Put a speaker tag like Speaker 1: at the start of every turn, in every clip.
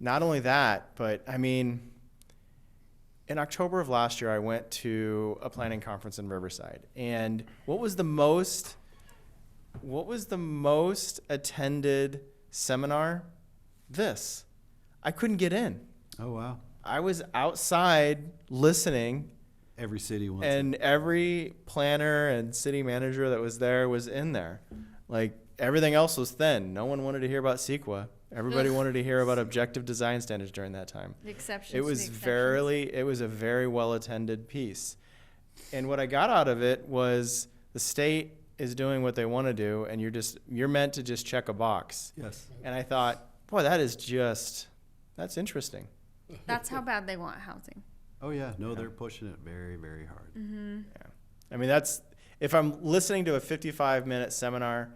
Speaker 1: not only that, but I mean, in October of last year, I went to a planning conference in Riverside, and what was the most what was the most attended seminar? This. I couldn't get in.
Speaker 2: Oh, wow.
Speaker 1: I was outside listening
Speaker 2: Every city wants it.
Speaker 1: and every planner and city manager that was there was in there. Like everything else was thin. No one wanted to hear about CEQA. Everybody
Speaker 3: Ugh.
Speaker 1: wanted to hear about objective design standards during that time.
Speaker 3: The exceptions.
Speaker 1: It
Speaker 3: to
Speaker 1: was
Speaker 3: exceptions.
Speaker 1: very it was a very well attended piece. And what I got out of it was the state is doing what they want to do and you're just you're meant to just check a box.
Speaker 2: Yes.
Speaker 1: And I thought, boy, that is just that's interesting.
Speaker 3: That's how bad they want housing.
Speaker 2: Oh, yeah. No, they're pushing it very, very hard.
Speaker 3: Mm-hmm.
Speaker 1: I mean, that's if I'm listening to a 55 minute seminar,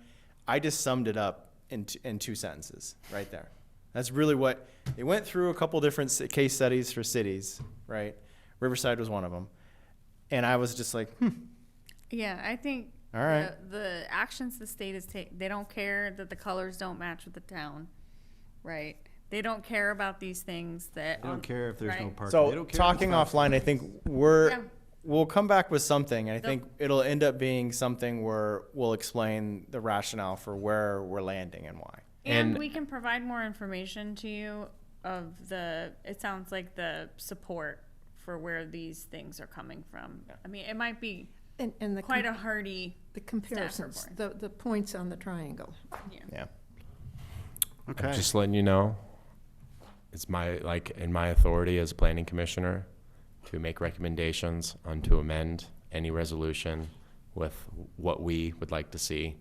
Speaker 1: I just summed it up in, t- in two sentences right there. That's really what they went through a couple different ci- case studies for cities, right? Riverside was one of them. And I was just like, hmm,
Speaker 3: Yeah, I think.
Speaker 1: All right.
Speaker 3: The, the actions the state is taking, they don't care that the colors don't match with the town, right? They don't care about these things that.
Speaker 2: They don't
Speaker 3: on-
Speaker 2: care if there's no
Speaker 3: right?
Speaker 2: parking. They
Speaker 1: so
Speaker 2: don't care if it's
Speaker 1: talking
Speaker 2: not-
Speaker 1: offline, I think we're,
Speaker 3: Yeah.
Speaker 1: we'll come back with something. And I
Speaker 3: Nope.
Speaker 1: think it'll end up being something where we'll explain the rationale for where we're landing and why.
Speaker 3: And,
Speaker 4: And-
Speaker 3: we can provide more information to you of the, it sounds like the support for where these things are coming from. I mean, it might be
Speaker 5: And, and the, com-
Speaker 3: quite a hearty,
Speaker 5: the comparisons, the, the points on the triangle.
Speaker 1: Yeah.
Speaker 2: Okay.
Speaker 4: I'm just letting you know, it's my, like, in my authority as planning commissioner to make recommendations on to amend any resolution with what we would like to see.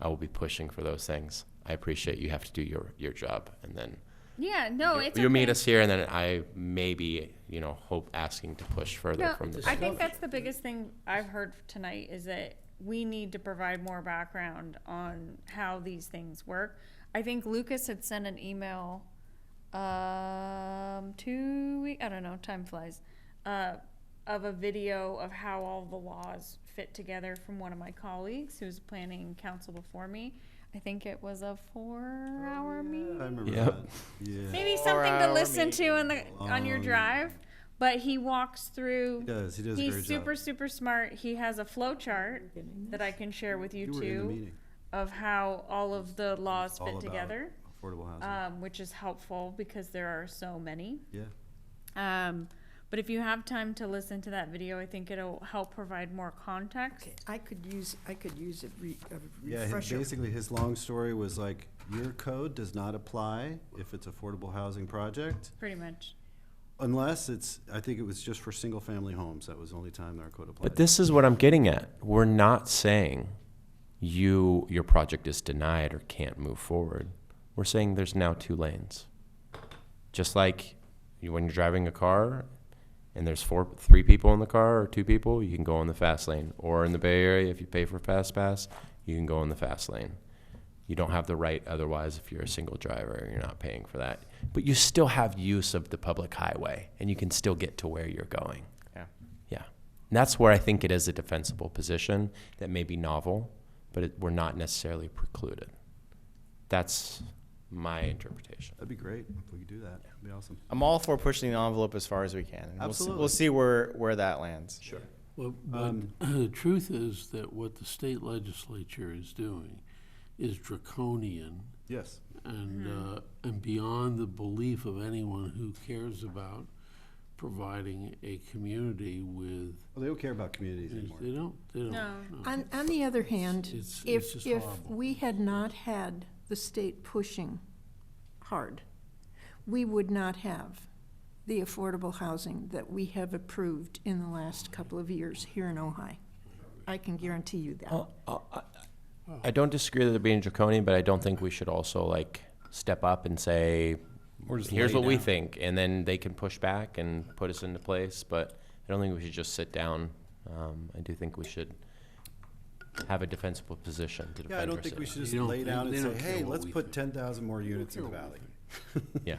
Speaker 4: I will be pushing for those things. I appreciate you have to do your, your job and then
Speaker 3: yeah, no, Oh, it's.
Speaker 4: you meet
Speaker 3: okay.
Speaker 4: us here and then I maybe, you know, hope asking to push further
Speaker 3: No,
Speaker 4: from the.
Speaker 3: I think that's the biggest thing I've heard tonight is that we need to provide more background on how these things work. I think Lucas had sent an email, um, two week, I don't know, time flies, uh, of a video of how all the laws fit together from one of my colleagues who was planning council before me. I think it was a four-hour
Speaker 2: Oh,
Speaker 3: meeting
Speaker 2: I remember
Speaker 4: Yep.
Speaker 2: that. Yeah.
Speaker 3: maybe something to
Speaker 1: Four-hour
Speaker 3: listen to
Speaker 1: meeting.
Speaker 3: on the on your
Speaker 2: Long.
Speaker 3: drive. But he walks through.
Speaker 2: Um, He does. He does a
Speaker 3: He's
Speaker 2: great job.
Speaker 3: super super smart. He has a flow chart that I can share with you,
Speaker 2: You were in the
Speaker 3: too
Speaker 2: meeting.
Speaker 3: of how all of the laws
Speaker 2: All
Speaker 3: fit
Speaker 2: about
Speaker 3: together,
Speaker 2: Affordable housing.
Speaker 3: um, which is helpful because there are so many.
Speaker 2: Yeah.
Speaker 3: Um, but if you have time to listen to that video, I think it'll help provide more context.
Speaker 5: Okay, I could use, I could use a re- a
Speaker 2: Yeah, his-
Speaker 5: refresher.
Speaker 2: basically, his long story was like, your code does not apply if it's affordable housing project,
Speaker 3: Pretty much.
Speaker 2: unless it's, I think it was just for single-family homes, that was the only time our code applied.
Speaker 4: But this is what I'm getting at. We're not saying you your project is denied or can't move forward. We're saying there's now two lanes. Just like you, when you're driving a car and there's four three people in the car or two people, you can go in the fast lane. Or in the Bay Area if you pay for fast pass, you can go in the fast lane. You don't have the right otherwise if you're a single driver, you're not paying for that. But you still have use of the public highway and you can still get to where you're going.
Speaker 1: Yeah.
Speaker 4: Yeah. And that's where I think it is a defensible position that may be novel, but it, we're not necessarily precluded. That's my interpretation.
Speaker 2: That'd be great if we could do that. That'd be awesome.
Speaker 1: I'm all for pushing the envelope as far as we can. And we'll see- We'll
Speaker 2: Absolutely.
Speaker 1: see where, where that lands.
Speaker 4: Sure.
Speaker 6: Well, but the truth is that what the state legislature is doing is draconian
Speaker 2: Yes.
Speaker 6: and, uh, and beyond the belief of anyone who cares about providing a community with,
Speaker 2: Well, they don't care about communities anymore.
Speaker 6: they don't, they don't.
Speaker 3: No.
Speaker 5: On, on the other hand,
Speaker 6: It's- it's
Speaker 5: if,
Speaker 6: just
Speaker 5: if
Speaker 6: horrible.
Speaker 5: we had not had the state pushing hard, we would not have the affordable housing that we have approved in the last couple of years here in Ojai. I can guarantee you that.
Speaker 4: I don't disagree that they're being draconian, but I don't think we should also like step up and say, here's
Speaker 2: lay
Speaker 4: what we
Speaker 2: down."
Speaker 4: think. And then they can push back and put us into place, but I don't think we should just sit down. Um, I do think we should have a defensible position to defend
Speaker 2: Yeah, I don't think we
Speaker 4: ourselves.
Speaker 2: should just
Speaker 6: They don't-
Speaker 2: lay down
Speaker 6: they
Speaker 2: and say,
Speaker 6: don't care
Speaker 2: hey,
Speaker 6: what
Speaker 2: let's
Speaker 6: we
Speaker 2: put ten thousand more units in the valley.
Speaker 4: Yeah.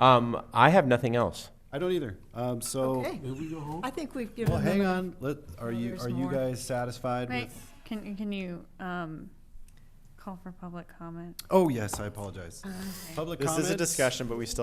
Speaker 4: Um, I have nothing else.
Speaker 2: I don't either. Um, so,
Speaker 5: Okay,
Speaker 6: Here we go home.
Speaker 5: I think we've
Speaker 2: well,
Speaker 5: given
Speaker 2: hang
Speaker 5: them,
Speaker 2: on, let, are you,
Speaker 5: there's
Speaker 2: are you
Speaker 5: more.
Speaker 2: guys satisfied
Speaker 3: Right?
Speaker 2: with?
Speaker 3: Can can you um, call for public comment?
Speaker 2: Oh, yes, I apologize. Public
Speaker 1: This
Speaker 5: Uh,
Speaker 2: comments?
Speaker 1: is a discussion, but we still